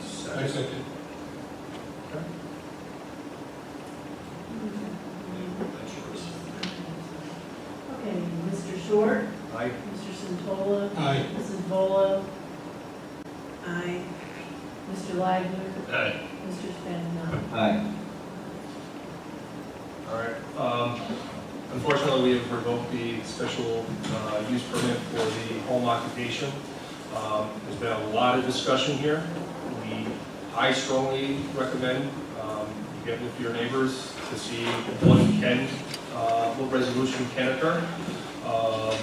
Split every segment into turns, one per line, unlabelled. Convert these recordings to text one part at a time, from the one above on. I second.
That's yours.
Okay, Mr. Short,
Aye.
Mr. Santola,
Aye.
Mrs. Volo. Aye. Mr. Leidner,
Aye.
Mr. Spagnano.
Aye.
All right, um, unfortunately, we have revoked the special, uh, use permit for the home occupation. Um, there's been a lot of discussion here. We, I strongly recommend, um, you get with your neighbors to see what can, uh, what resolution can occur. Um,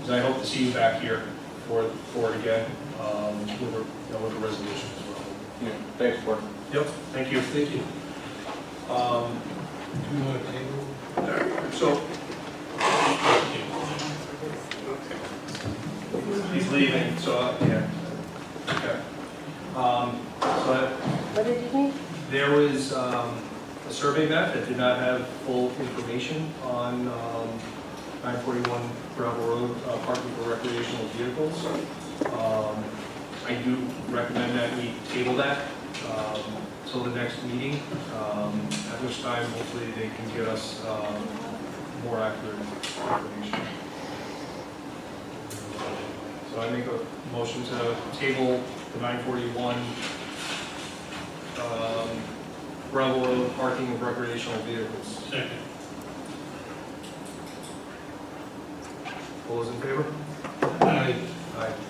'cause I hope to see you back here for, for it again, um, with a, you know, with a resolution as well.
Yeah, thanks, Mark.
Yep, thank you. Thank you. Um,
Do you want to table?
so. He's leaving, so, uh, yeah. Okay. Um, so
What did you think?
there was, um, a survey map that did not have full information on, um, nine forty-one gravel road, uh, parking for recreational vehicles. Um, I do recommend that we table that, um, till the next meeting, um, at which time hopefully they can get us, um, more accurate information. So I make a motion to table the nine forty-one, um, gravel road parking of recreational vehicles.
Second.
All those in favor?
Aye.
Aye.